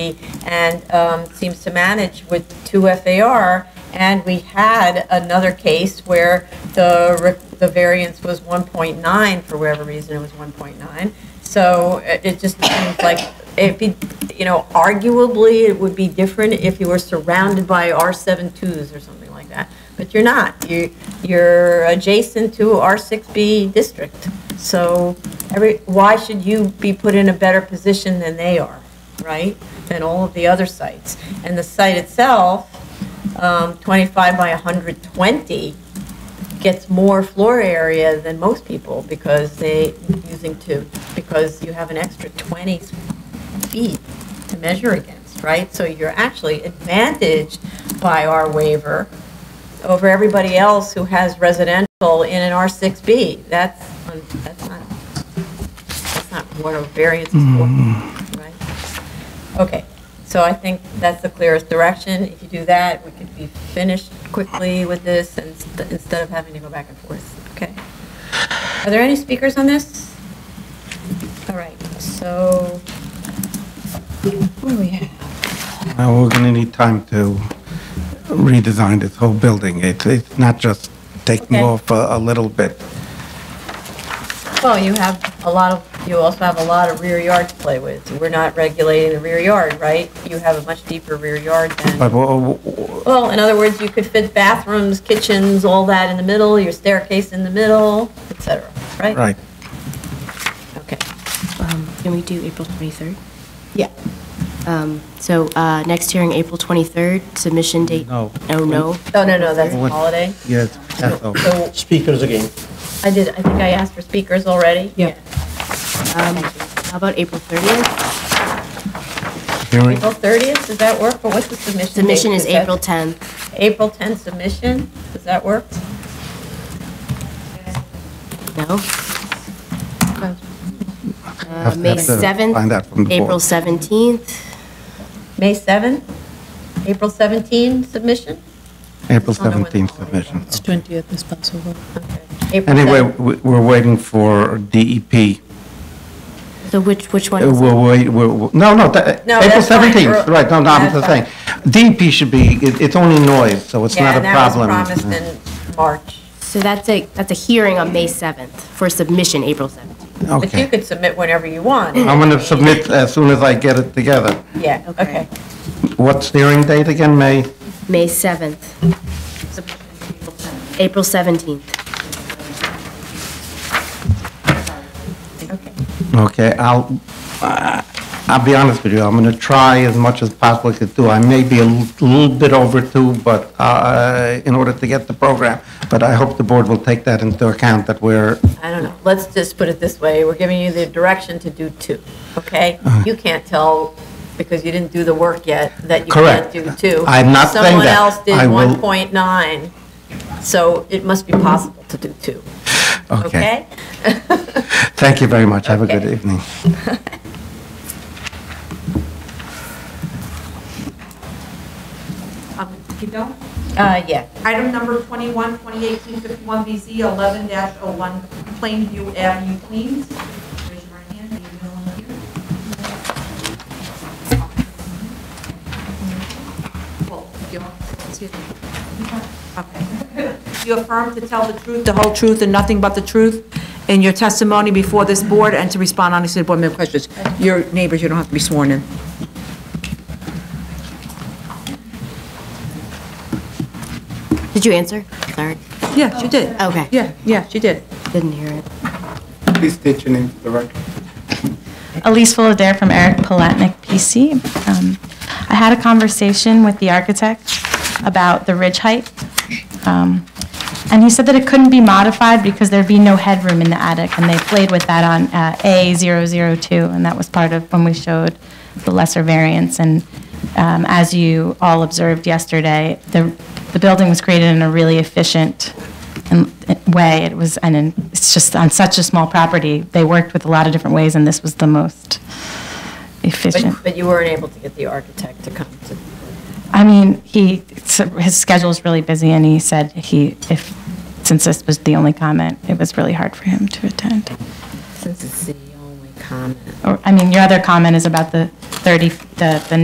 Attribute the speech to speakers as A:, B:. A: and um, seems to manage with two FAR. And we had another case where the, re- the variance was 1.9, for whatever reason, it was 1.9. So uh, it it just seems like, it'd be, you know, arguably, it would be different if you were surrounded by R72s or something like that. But you're not, you, you're adjacent to R6B district. So every, why should you be put in a better position than they are? right, than all of the other sites. And the site itself, um, 25 by 120, gets more floor area than most people because they, using two, because you have an extra 20 feet to measure against, right? So you're actually advantaged by our waiver over everybody else who has residential in an R6B. That's, un- that's not, that's not what a variance is for, right? Okay, so I think that's the clearest direction. If you do that, we could be finished quickly with this and st- instead of having to go back and forth, okay? Are there any speakers on this? All right, so, what do we have?
B: Now, we're going to need time to redesign this whole building. It's, it's not just taking
A: Okay.
B: off a, a little bit.
A: Well, you have a lot of, you also have a lot of rear yard to play with. We're not regulating the rear yard, right? You have a much deeper rear yard than.
B: But, w- w-
A: Well, in other words, you could fit bathrooms, kitchens, all that in the middle, your staircase in the middle, et cetera, right?
B: right,
A: Okay.
C: Um, Can we do April 23rd?
A: Yeah.
C: Um, So uh, next hearing, April 23rd, submission date?
B: No.
C: Oh, no?
A: Oh, no, no, that's a
B: What-
A: holiday.
B: yes, Passover.
A: So
D: Speakers again.
A: I did, I think I asked for speakers already. Yeah.
C: Um, How about April 30th?
B: Hearing,
A: April 30th, does that work? Or what's the submission date?
C: Submission is
A: that-
C: April 10th.
A: April 10th submission, does that work?
C: No?
B: have
C: Uh,
B: to-
C: May
B: have to
C: 7th?
B: find out from the
C: April
B: board.
C: 17th?
A: May 7th? April 17 submission?
B: April
A: I don't know when the
B: 17th
A: holiday
B: submission.
E: It's 20th is Passover.
A: Okay. April
B: Anyway,
A: 7th.
B: we- we're waiting for DEP.
C: So which, which one?
B: Uh,
C: is it?
B: We'll wait, we'll, we'll- no, no, that-
A: No,
B: April
A: that's fine.
B: 17th, right, no, no, I'm
A: That's
B: just
A: fine.
B: saying. DEP should be, it- it's only noise, so it's
A: Yeah,
B: not a
A: and that was
B: problem.
A: promised in March.
C: So that's a, that's a hearing on May 7th for submission, April 17th.
A: But you
B: Okay,
A: could submit whenever you want.
B: I'm going to submit as soon as I get it together.
A: Yeah, okay.
B: What's the hearing date again, May?
C: May 7th. April 17th.
A: Okay.
B: Okay, I'll, uh, I'll be honest with you, I'm going to try as much as possible I could do. I may be a l- little bit over two, but uh, in order to get the program, but I hope the board will take that into account, that we're,
A: I don't know, let's just put it this way, we're giving you the direction to do two, okay? You can't tell, because you didn't do the work yet, that you can't
B: Correct.
A: do two.
B: I'm not saying that. I will-
A: Someone else did 1.9, so it must be possible to do two,
B: okay.
A: okay?
B: Thank you very much, have a good
A: Okay.
B: evening.
F: Um, if you don't,
A: Uh, yeah,
F: item number 21, 2018-51BZ, 11-01 Plainview Avenue, Queens. Raise your right hand, Are you the one here? Well, you don't- excuse me. Okay. You affirm to tell the truth, the whole truth, and nothing but the truth in your testimony before this board and to respond honestly to board member questions. Your neighbors, you don't have to be sworn in.
C: Did you answer? Sorry,
F: Yeah, she did.
C: Okay.
F: Yeah, yeah, she did.
C: didn't hear it.
B: Please state your name for the record.
G: Elise Fullader from Eric Palatnik, PC. Um, I had a conversation with the architect about the ridge height, um, and he said that it couldn't be modified because there'd be no headroom in the attic, and they played with that on uh, A002, and that was part of when we showed the lesser variance. And um, as you all observed yesterday, the the building was created in a really efficient in- way. It was, and in- it's just on such a small property, they worked with a lot of different ways, and this was the most efficient.
A: but, but you weren't able to get the architect to come to,
G: I mean, he, his schedule's really busy, and he said he, if, since this was the only comment, it was really hard for him to attend.
A: since it's the only comment.
G: Or, I mean, your other comment is about the 30, the the